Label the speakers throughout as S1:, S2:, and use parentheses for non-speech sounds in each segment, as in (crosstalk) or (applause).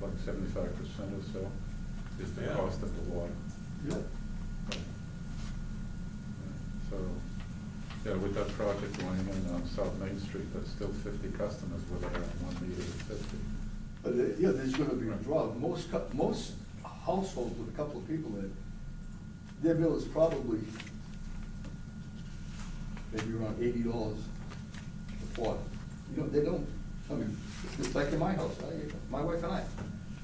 S1: like seventy-five percent or so is the
S2: Yeah.
S1: cost of the water.
S2: Yep.
S1: So, yeah, with that project going in on South Main Street, that's still fifty customers with their one meter of fifty.
S2: But, uh, yeah, there's gonna be a
S1: Right.
S2: draw. Most, cou- most households with a couple of people in, it, their bill is probably maybe around eighty dollars a quart. You know, they don't, I mean, it's like in my house, I, my wife and I,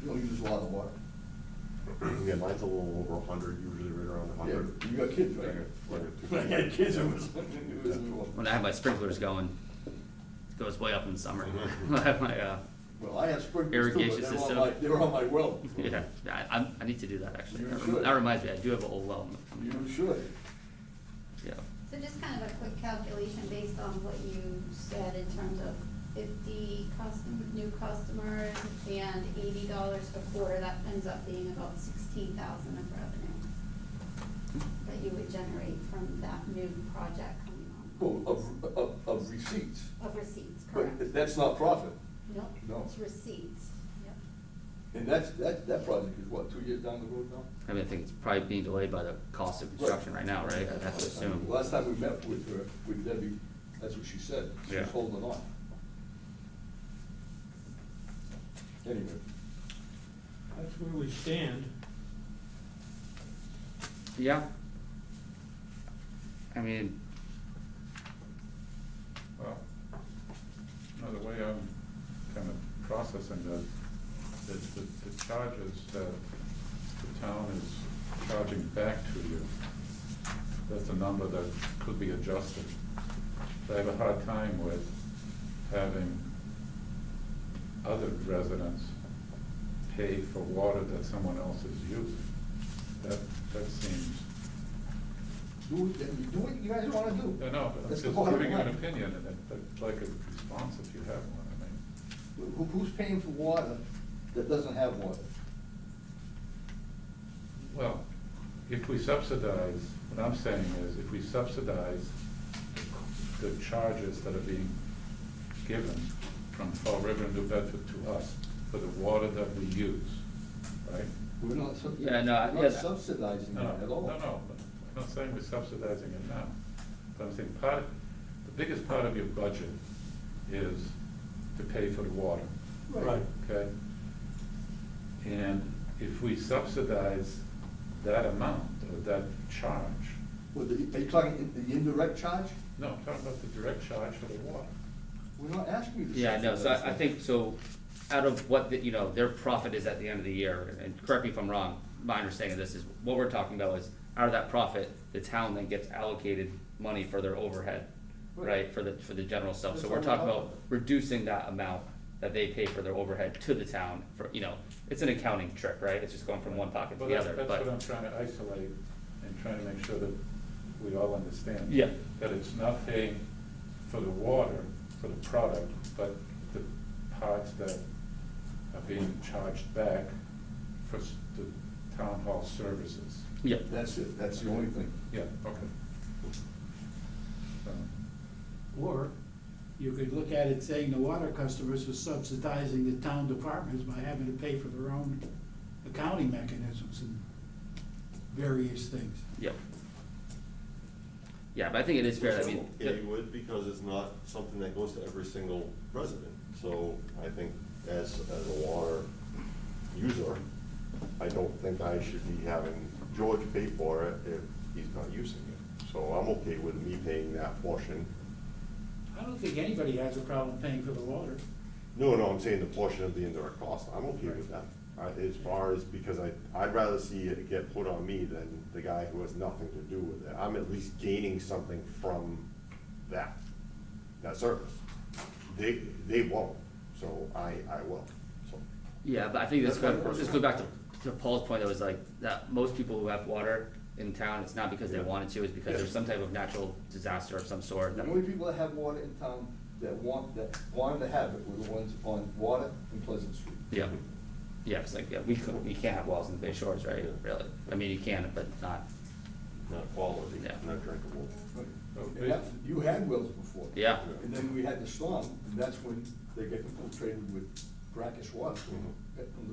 S2: we don't use a lot of water.
S3: Yeah, mine's a little over a hundred, usually right around a
S2: Yeah,
S3: hundred.
S2: you got kids,
S3: I
S2: right?
S3: got- I got two
S2: When (laughs) I
S3: (laughs)
S2: had kids, it was, it was.
S4: When I have my sprinklers going, it goes way up in
S2: (laughs)
S4: the summer. (laughs)
S3: Mhm.
S4: I have my, uh,
S2: Well, I have sprinklers too, but
S4: Irrigation
S2: they were on
S4: system.
S2: my, they were on my well.
S4: (laughs) yeah, I, I'm- I need to do that actually.
S2: You
S4: That rem-
S2: should.
S4: That reminds me, I do have an old well.
S2: You should.
S4: Yeah,
S5: So just kind of a quick calculation based on what you said in terms of fifty custom, new customers and eighty dollars per quarter, that ends up being about sixteen thousand of revenue that you would generate from that new project coming
S2: Well,
S5: on.
S2: of, of, of receipts,
S5: Of receipts, correct?
S2: but that's not profit.
S5: Nope,
S2: No.
S5: it's receipts, yep.
S2: And that's, that, that project is what, two years down the road now?
S4: I mean, I think it's probably being delayed by the cost of construction right now, right? I'd have to assume.
S2: Last time we met with her, with Debbie, that's what she said,
S4: Yeah.
S2: she's holding on. Anyway,
S6: That's where we stand.
S4: Yeah. I mean,
S1: Well, no, the way I'm kind of processing that, that the, the charges that the town is charging back to you, that's a number that could be adjusted. I have a hard time with having other residents pay for water that someone else is using. That, that seems
S2: do, it- then you do what you guys wanna do.
S1: I know, but I'm just
S2: That's the bottom
S1: giving you an
S2: line.
S1: opinion, and I'd- I'd like a response if you have one, I mean.
S2: Who, who's paying for water that doesn't have water?
S1: Well, if we subsidize, what I'm saying is, if we subsidize the charges that are being given from Fall River and New Bedford to us for the water that we use, right?
S2: We're not sub-
S4: Yeah, no, I-
S2: we're not
S4: yeah, that-
S2: subsidizing
S1: No, no,
S2: it at all.
S1: No, no, I'm not saying we're subsidizing it now, but I'm saying part, the biggest part of your budget is to pay for the water.
S2: Right.
S1: Okay? And if we subsidize that amount, or that charge,
S2: Well, the- are you talking in- the indirect charge?
S1: no, I'm talking about the direct charge for the water.
S2: We're not asking you to.
S4: Yeah, no, so I, I
S2: subsidize
S4: think,
S2: that.
S4: so, out of what, the- you know, their profit is at the end of the year, and correct me if I'm wrong, my understanding of this is, what we're talking about is, out of that profit, the town then gets allocated money for their overhead, right, for the, for the general stuff, so
S2: That's all
S4: we're
S2: we're
S4: talking about
S2: talking about.
S4: reducing that amount that they pay for their overhead to the town, for, you know, it's an accounting trick, right, it's just going from one pocket to
S1: Well,
S4: the
S1: that's-
S4: other,
S1: That's what I'm
S4: but,
S1: trying to isolate and trying to make sure that we all understand.
S4: Yeah.
S1: That it's not paying for the water, for the product, but the parts that are being charged back for s- the town hall services.
S4: yeah,
S2: That's it, that's the only thing.
S1: Yeah, okay. Um, So.
S7: Or you could look at it saying the water customers are subsidizing the town departments by having to pay for their own accounting mechanisms and various things.
S4: yeah. Yeah, but I think it is fair, I mean. the-
S3: It would, because it's not something that goes to every single resident, so I think as, as a water user, I don't think I should be having George pay for it if he's not using it. So I'm okay with me paying that portion.
S7: I don't think anybody has a problem paying for the water.
S3: No, no, I'm saying the portion of the indirect cost, I'm okay with that. I- As far as, because I, I'd rather see it get put on me than the guy who has nothing to do with it. I'm at least gaining something from that, that service. They, they won't, so I, I will, so.
S4: Yeah, but I think this
S3: That's
S4: goes,
S3: my
S4: this goes back to, to Paul's point, that was like, that most people who have water in town, it's not because they
S3: Yeah.
S4: wanted to, it's because
S3: Yeah.
S4: there's some type of natural disaster of some sort.
S2: The
S4: that-
S2: only people that have water in town that want, that wanted to have it were the ones on Water and Pleasant Street.
S4: Yeah, yeah, it's like, yeah, we could, we can't have walls in the Bay Shores, right,
S3: Yeah.
S4: really, I mean, you can, but not,
S3: Not quality,
S4: Yeah.
S3: not drinkable.
S2: And that- You had wells before.
S4: yeah,
S2: And then we had the storm, and that's when they get infiltrated with brackish water from the- from the